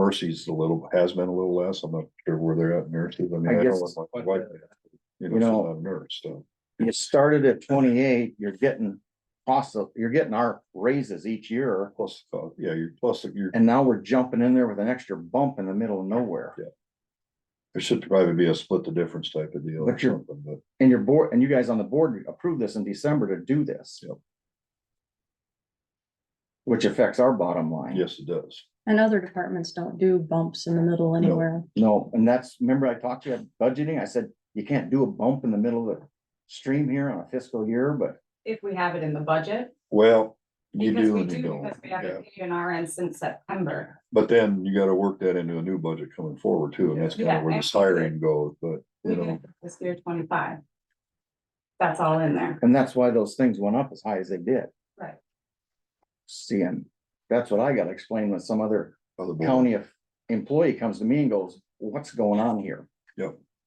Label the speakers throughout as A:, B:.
A: Mercy's a little, has been a little less. I'm not sure where they're at nurses. I mean,
B: I
A: I
B: guess-
A: know my wife, you know, she's
B: You know-
A: not a nurse, so.
B: You started at twenty-eight, you're getting possible, you're getting our raises each year.
A: Plus, uh, yeah, you're plus, you're,
B: And now we're jumping in there with an extra bump in the middle of nowhere.
A: there should probably be a split the difference type of deal or
B: But you're-
A: something, but
B: And your board, and you guys on the board approved this in December to do this.
A: Yep.
B: Which affects our bottom line.
A: yes, it does.
C: And other departments don't do bumps in the middle anywhere.
B: No, and that's, remember I talked to you at budgeting, I said, you can't do a bump in the middle of the stream here on a fiscal year, but
D: if we have it in the budget.
A: Well, you
D: Because
A: do
D: we
A: and you
D: do,
A: don't.
D: because we
A: Yeah.
D: haven't paid an RN since September.
A: But then you gotta work that into a new budget coming forward too, and that's kind of
D: Yeah,
A: where the
D: absolutely.
A: siren goes, but,
D: We
A: you
D: did
A: know,
D: it this year twenty-five. That's all in there.
B: And that's why those things went up as high as they did.
D: Right.
B: Seeing, that's what I gotta explain when some other
A: other board,
B: county of- employee comes to me and goes, what's going on here?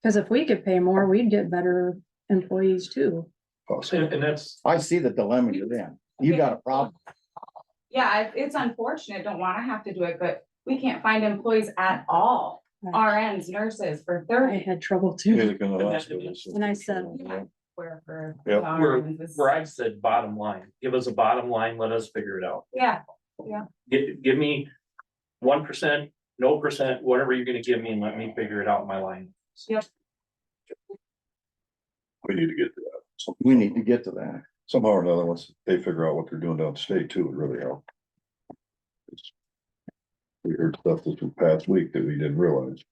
C: Cause if we could pay more, we'd get better employees too.
A: possibly.
E: And, and that's,
B: I see the dilemma you're in. You got a problem.
D: Yeah, I- it's unfortunate, don't wanna have to do it, but we can't find employees at all,
C: I
D: RNs, nurses, for
C: I
D: thirty.
C: had trouble too.
A: Music in the
E: And that-
A: hospital, so-
C: And I said-
A: Yeah.
D: Where for.
A: Yep.
E: We're-
D: RNs is-
E: where I said bottom line, give us a bottom line, let us figure it out.
D: Yeah,
E: Give, give me one percent, no percent, whatever you're gonna give me and let me figure it out my line.
A: We need to get to that. So-
B: We need to get to that.
A: Somehow or another, once they figure out what they're doing downstate too, it really helps. It's- We heard stuff this past week that we didn't realize.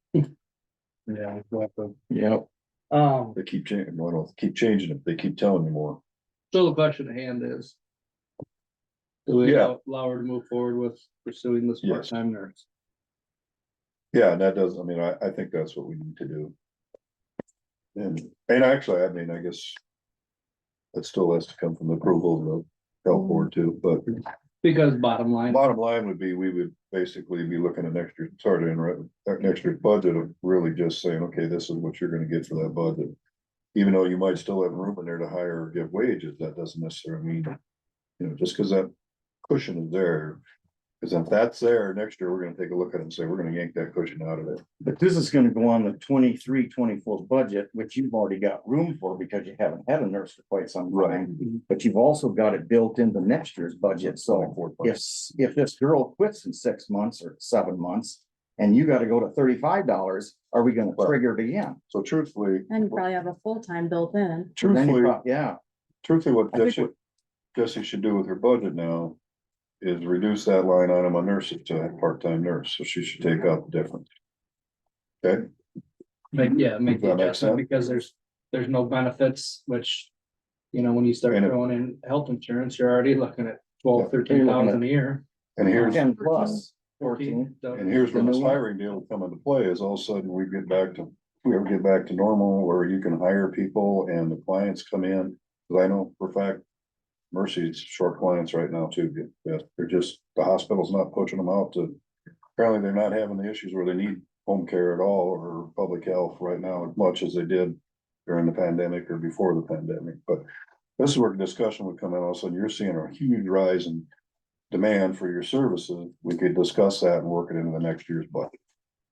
E: Yeah. we'll have to-
B: Yep.
F: Um,
A: They keep changing, why don't, keep changing it, they keep telling you more.
F: so the question at hand is. Do we
A: Yeah.
F: allow allow her to move forward with pursuing this
A: Yes.
F: part-time nurse?
A: Yeah, and that does, I mean, I, I think that's what we need to do. And, and actually, I mean, I guess. That still has to come from the approval of the health board too, but
F: Because bottom line,
A: bottom line would be, we would basically be looking at next year, sorry to interrupt, that next year's budget of really just saying, okay, this is what you're gonna get for that budget. Even though you might still have room in there to hire or give wages, that doesn't necessarily mean, you know, just because that cushion is there. Cause if that's there, next year, we're gonna take a look at it and say, we're gonna yank that cushion out of it.
B: But this is gonna go on the 23-24 budget, which you've already got room for because you haven't had a nurse for quite some
A: Right. Mm-hmm.
B: time. But you've also got it built into next year's budget, so. if, s- if this girl quits in six months or seven months, and you gotta go to thirty-five dollars, are we gonna
A: Well-
B: trigger it again?
A: So truthfully,
C: And you probably have a full-time built in.
B: Then you
A: truthfully,
B: prob- Yeah,
A: truthfully, what
B: I think
A: Jesse, Jesse should do with her budget now. Is reduce that line item on nurses to a part-time nurse, so she should take out the difference. Okay,
F: make, yeah, make the
A: Does that make sense?
F: adjustment because there's, there's no benefits, which. You know, when you start
A: And it-
F: throwing in health insurance, you're already looking at twelve,
A: Yeah,
B: you're
F: thirteen
B: looking
F: thousand a year.
A: and here's,
B: ten plus, fourteen,
F: 14, so-
A: and here's where
B: The
A: this
B: new one.
A: hiring deal will come into play, is all of a sudden we get back to, if we ever get back to normal, where you can hire people and the clients come in. Cause I know for a fact, Mercy's short clients right now too, yeah, they're just, the hospital's not pushing them out to. Apparently, they're not having the issues where they need home care at all or public health right now as much as they did during the pandemic or before the pandemic, but this is where discussion would come in, all of a sudden, you're seeing a huge rise in demand for your services, we could discuss that and work it into the next year's budget.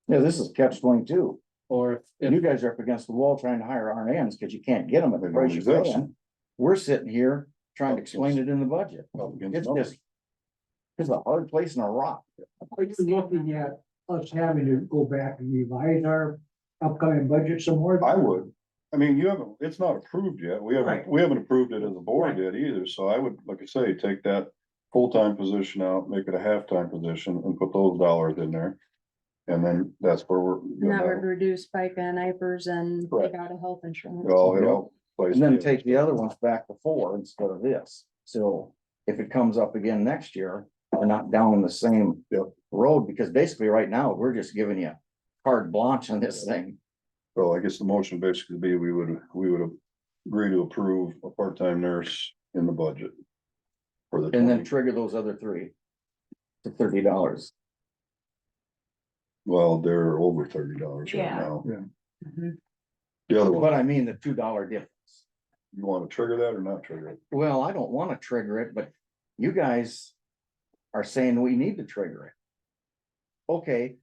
B: yeah, this is catch twenty-two,
F: Or if,
B: and you guys are up against the wall trying to hire RNs, cause you can't get them at the
A: They
B: price
A: don't
B: you
A: exist.
B: can. We're sitting here trying to explain it in the budget,
A: up against
B: it's
A: numbers.
B: just. It's a hard place in a rock,
G: Are you looking at us having to go back and revise our upcoming budget some more?
A: I would, I mean, you haven't, it's not approved yet, we haven't,
F: Right.
A: we haven't approved it as a board yet either, so I would, like I say, take that. Full-time position out, make it a half-time position and put those dollars in there. And then that's where we're. you
C: And that would
A: know,
C: reduce FICA and IPers and
A: Correct.
C: take out a health insurance.
A: it all- it all plays
B: and then
A: together.
B: take the other ones back to four instead of this, so. If it comes up again next year, we're not down the same
A: Yep.
B: road, because basically right now, we're just giving you carte blanche on this thing.
A: So I guess the motion basically would be, we would, we would agree to approve a part-time nurse in the budget. For the.
B: And then
A: 20
B: trigger those other three. To thirty dollars.
A: Well, they're over thirty dollars right
D: Yeah.
A: now.
D: Mhm.
A: The other one,
B: But I mean the two dollar difference.
A: you wanna trigger that or not trigger it?
B: Well, I don't wanna trigger it, but you guys. Are saying we need to trigger it. Okay,